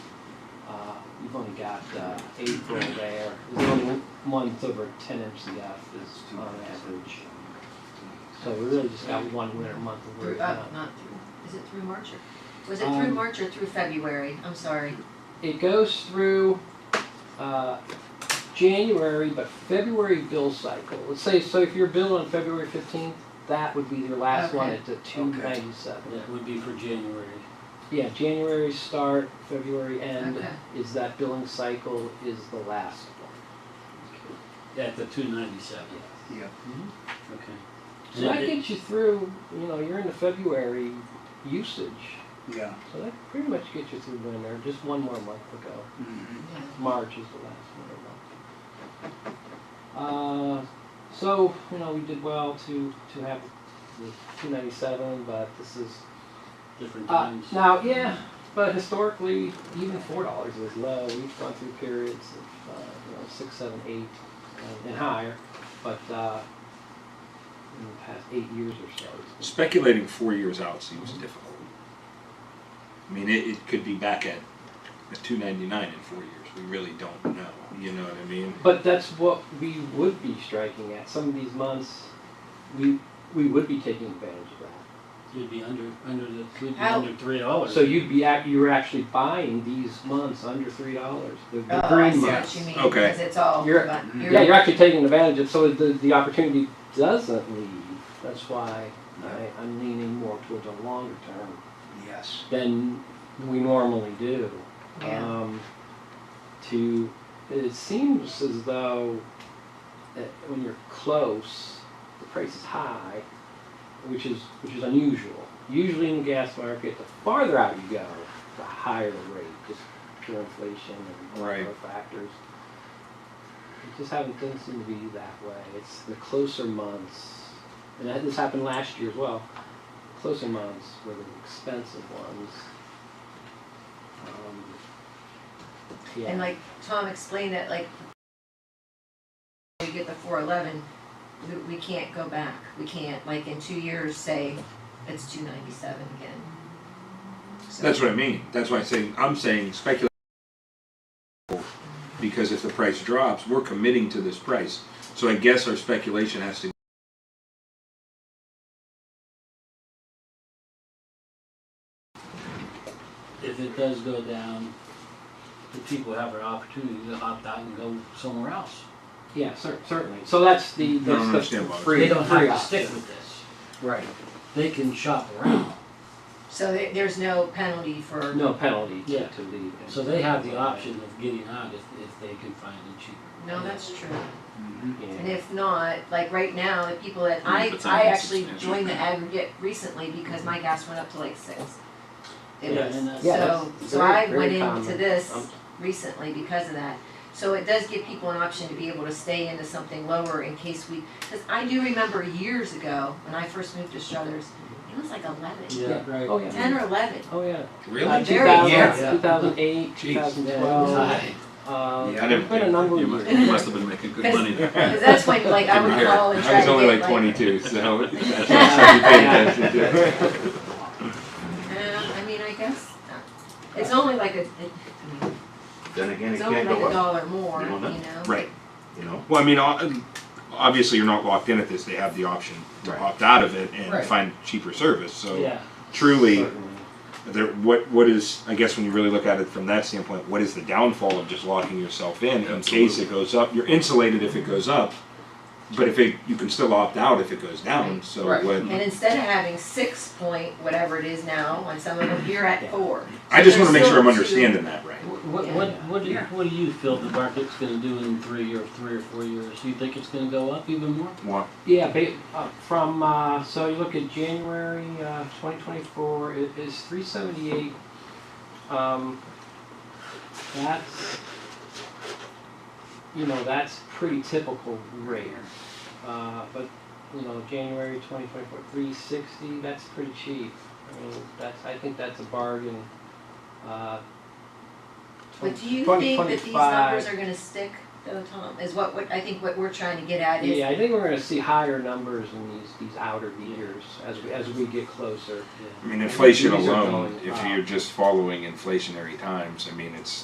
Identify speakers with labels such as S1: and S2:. S1: we've only got uh, April there. There's only month over ten inch the F is on average. So we really just got one winter month of work
S2: Through, uh,
S1: done.
S2: not through, is it through March or, was it through
S1: Um,
S2: March or through February? I'm sorry.
S1: It goes through uh, January, but February bill cycle. Let's say, so if you're billed on February fifteenth, that would be your last one
S2: Okay.
S1: at the two ninety-seven.
S3: That would be for January.
S1: Yeah, January start, February end
S2: Okay.
S1: is that billing cycle is the last
S3: At the two ninety-seven,
S1: one.
S3: okay.
S1: So that
S3: And it-
S1: gets you through, you know, you're into February usage.
S4: Yeah.
S1: So that pretty much gets you through winter, just one more month to go.
S2: Mm-hmm.
S4: Mhm.
S1: March is the last winter month. Uh, so, you know, we did well to, to have the two ninety-seven, but this is,
S3: Different
S1: uh,
S3: times.
S1: now, yeah, but historically, even four dollars is low. We've gone through periods of, uh, you know, six, seven, eight, uh, and- and higher, but, uh, in the past eight years or so, it's been
S5: Speculating four years out seems difficult. I mean, it, it could be back at, at two ninety nine in four years. We really don't know. You know what I mean?
S1: But that's what we would be striking at. Some of these months, we we would be taking advantage of that.
S3: You'd be under, under the, we'd be
S2: How-
S3: under three dollars.
S1: So you'd be act, you're actually buying these months under three dollars. The, the
S2: Oh, I
S1: green
S2: see
S1: months.
S2: what you mean,
S5: Okay.
S2: because it's all,
S1: You're-
S2: but you're.
S1: Yeah, you're actually taking advantage of. So the the opportunity doesn't leave. That's why I, I'm leaning more towards a longer term
S4: Yes.
S1: than we normally do.
S2: Yeah.
S1: um, to it seems as though that when you're close the price is high which is which is unusual usually in the gas market the farther out you go the higher the rate just pure inflation and
S5: Right.
S1: other factors it just haven't doesn't seem to be that way it's the closer months and that, this happened last year as well closer months were the expensive ones um, yeah.
S2: And like Tom explained that, like, we get the four eleven, we, we can't go back. We can't, like, in two years, say, it's two ninety-seven again. So-
S5: That's what I mean. That's why I'm saying I'm saying speculate because if the price drops, we're committing to this price. So I guess our speculation has to
S3: If it does go down, the people have an opportunity to opt out and go somewhere else.
S1: Yeah, cer- certainly. So that's the,
S5: I don't
S1: that's the
S5: understand why.
S1: free,
S3: They don't have
S1: free
S3: to stick
S1: option.
S3: with this.
S1: Right.
S3: They can shop around,
S2: So there, there's no penalty for,
S1: No penalty to,
S3: Yeah.
S1: to leave.
S3: so they have the option of getting out if, if they can find it cheaper.
S2: no, that's true.
S4: Mhm.
S2: And
S1: Yeah.
S2: if not, like right now, the people that,
S5: Yeah,
S2: I,
S5: but some
S2: I
S5: people
S2: actually
S5: substantial.
S2: joined the aggregate recently because my gas went up to like six. It
S3: Yeah,
S2: was-
S3: and that's-
S1: Yeah,
S2: so,
S1: that's
S2: so
S1: very-
S2: I
S1: very
S2: went into
S1: common.
S2: this
S1: Um,
S2: recently because of that. So it does give people an option to be able to stay into something lower in case we, because I do remember years ago, when I first moved to Struthers, it was like eleven,
S3: Yeah, right.
S1: Oh, yeah.
S2: ten or eleven.
S1: Oh, yeah. Uh,
S5: really.
S2: Very
S1: 2000,
S3: Yeah.
S1: 2008,
S5: Jeez.
S1: 2012. Uh,
S4: Yeah, I
S1: it's been a number
S5: you,
S1: of
S5: must,
S1: years.
S5: have been making good
S2: Cause-
S5: money there.
S2: Because that's when, like, I would call and
S5: I
S2: try to
S5: was
S2: get
S5: only like
S2: like-
S5: 22, so that's what I should be paying attention to.
S2: Uh, I mean, I guess, uh, it's only like a, it-
S6: Then again, it
S2: It's only
S6: can't
S2: like
S6: go
S2: a
S6: up,
S2: dollar more,
S6: You
S2: you
S6: don't know.
S2: know?
S5: Right.
S6: you know?
S5: Well, I mean, o- obviously you're not locked in at this. They have the option to
S6: Right.
S5: opt out of it and
S3: Right.
S5: find cheaper service. So
S3: Yeah,
S5: truly,
S1: Certainly.
S5: there, what what is I guess when you really look at it from that standpoint, what is the downfall of just locking yourself in in case it goes up? You're insulated if it goes up, but if it you can still opt out if it goes down. So
S3: Right.
S5: what?
S2: And instead of having six point, whatever it is now, on some of them, you're at four.
S5: I just want to make sure I'm
S2: There's still two.
S5: understanding that right.
S3: what, what, what do you, what do you feel the market's gonna do in three or, three or four years? Do you think it's gonna go up even more?
S5: Well,
S1: Yeah, ba- uh, from, uh, so you look at January, uh, twenty twenty-four, it is three seventy-eight. Um, that's, you know, that's pretty typical rate. Uh, but, you know, January twenty twenty-four, three sixty, that's pretty cheap. I mean, that's, I think that's a bargain, uh.
S2: But do you
S1: 20,
S2: think that these
S1: 25.
S2: numbers are gonna stick though, Tom, is what, what, I think what we're trying to get at is,
S1: Yeah, I think we're gonna see higher numbers in these, these outer years as we, as we get closer.
S5: I mean, inflation
S1: These are
S5: alone.
S1: going
S5: If
S1: up.
S5: you're just following inflationary times, I mean, it's